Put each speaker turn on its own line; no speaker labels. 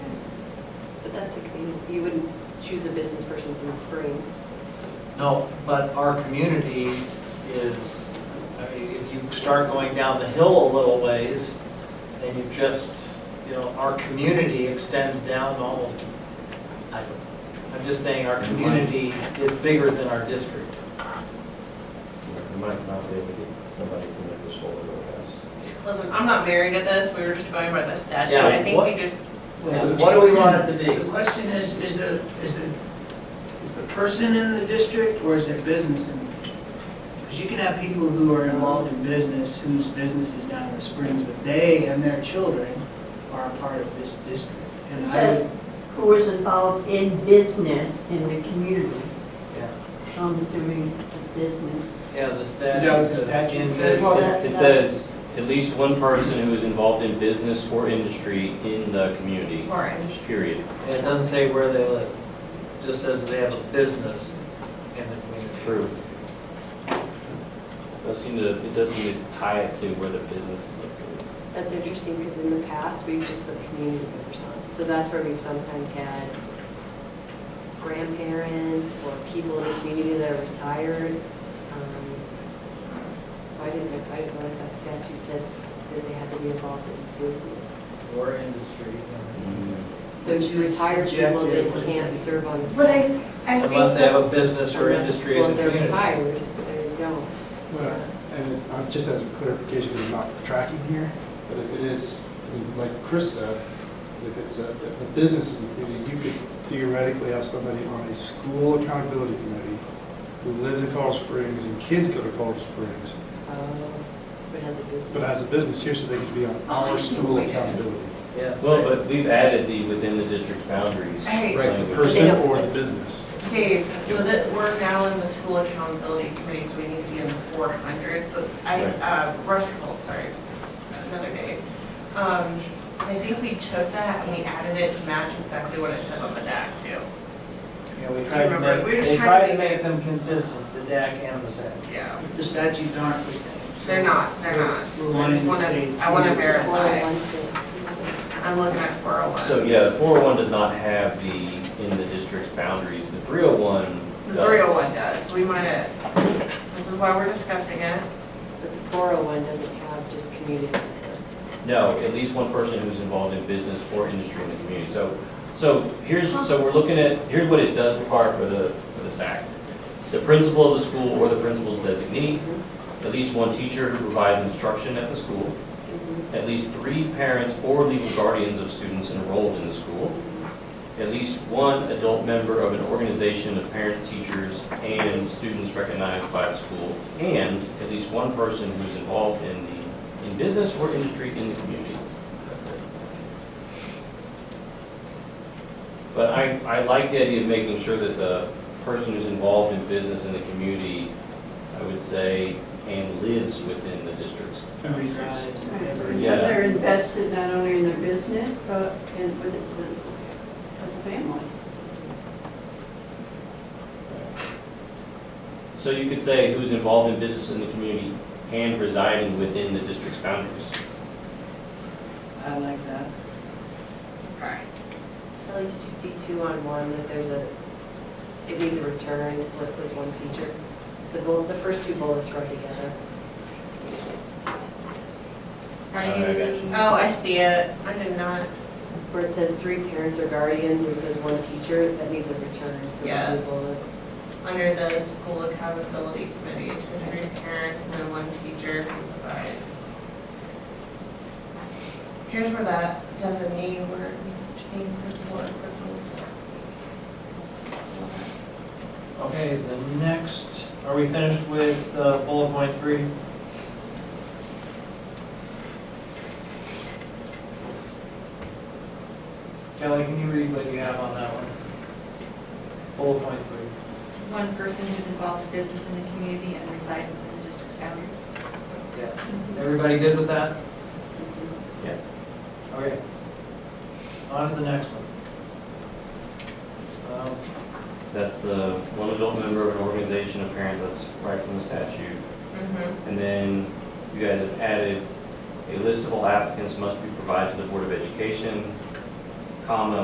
But that's, the commu- you wouldn't choose a business person from Springs.
No, but our community is, I mean, if you start going down the hill a little ways, and you just, you know, our community extends down to almost, I- I'm just saying, our community is bigger than our district.
You might not be able to get somebody from the Crystal River House.
Listen, I'm not married to this, we were just going by the statute,
Yeah,
I think
what-
we just,
What do we want it to
The
be?
question is, is the, is the, is the person in the district or is it business in? Because you can have people who are involved in business, whose business is down in the Springs, but they and their children are a part of this district. And
It
I,
says who is involved in business in the community.
Yeah.
So I'm assuming a business.
Yeah, the statute.
Is that what the statute
It
says?
Well,
says-
that-
It
that-
says, at least one person who is involved in business or industry in the community,
or any.
period.
It doesn't say where they live, It just says they have a business in the community.
True. Does seem to, it does seem to tie it to where the business is located.
That's interesting, because in the past, we've just put community members on. So that's where we've sometimes had grandparents or people in the community that are retired. Um, So I didn't, I didn't realize that statute said that they had to be involved in business.
Or industry. you know.
Mm-hmm.
So
Which is
retired people
subjective,
that
isn't
can't
it?
serve on the.
But I, I think
Unless they have a
that's,
business or
unless-
industry
Well,
in
if
the
they're
community.
retired, they don't.
Well, And it- uh, just as a clarification, we're not tracking here, but if it is, I mean, like Chris said, if it's a, if a business, is included, you could theoretically have somebody on a school accountability committee who lives in Colorado Springs and kids go to Colorado Springs,
Um, But has a business.
but has a business here, so they could be on our school accountability.
Yes.
Well, but we've added the within the district boundaries.
Hey.
Right, the
language.
person or the business.
Dave, so that we're now in the school accountability committee, so we need to be in the four hundred, but I,
Right.
uh, Rush Holt, sorry, another day. Um, I think we took that and we added it to match exactly what it said on the DAC too.
Yeah, we tried to
Remember,
make,
we were just
they
trying to
tried to
make
make them consistent, the DAC and the SAC.
Yeah.
the statutes aren't the same. so-
They're not, they're not.
We're
I just
wanting to
wanna,
stay
I wanna
true to-
Or
verify.
one's a-
I'm looking at four oh one.
So, yeah, the 401 does not have the, in the district's boundaries, the 301 does.
The three oh one does, we might have, this is why we're discussing it.
But the 401 doesn't have just community.
No, at least one person who's involved in business or industry in the community. So, so here's, so we're looking at, here's what it does require for the, for the SAC. The principal of the school or the principal's designee, at least one teacher who provides instruction at the school, at least three parents or legal guardians of students enrolled in the school, at least one adult member of an organization of parents, teachers, and students recognized by the school, and at least one person who's involved in the, in business or industry in the community. That's it. But I, I like the idea of making sure that the person who's involved in business in the community, I would say, and lives within the district's
And resides or whatever.
So
Yeah.
they're invested not only in their business, but in, with, with, as a family.
So you could say who's involved in business in the community and residing within the district's boundaries.
I like that.
Right.
Kelly, did you see two on one, that there's a, it needs a return, where it says one teacher? The bull, the first two bullets run together.
Are
Uh, I got
you, oh, I see it, I did not,
Where it says three parents or guardians, and it says one teacher, that needs a return, so there's
Yes.
a bullet.
under the school accountability committee, so three parents and then one teacher can provide. Here's where that designee word, seeing principal and principals.
Okay, the next, are we finished with uh, bullet point three? Kelly, can you read what you have on that one? Bullet point three.
one person who's involved in business in the community and resides within the district's boundaries.
Yes. Is everybody good with that?
Yeah.
Okay. On to the next one. Um,
That's the one adult member of an organization of parents, that's right from the statute.
Mm-hmm.
And then you guys have added, a list of all applicants must be provided to the Board of Education, comma,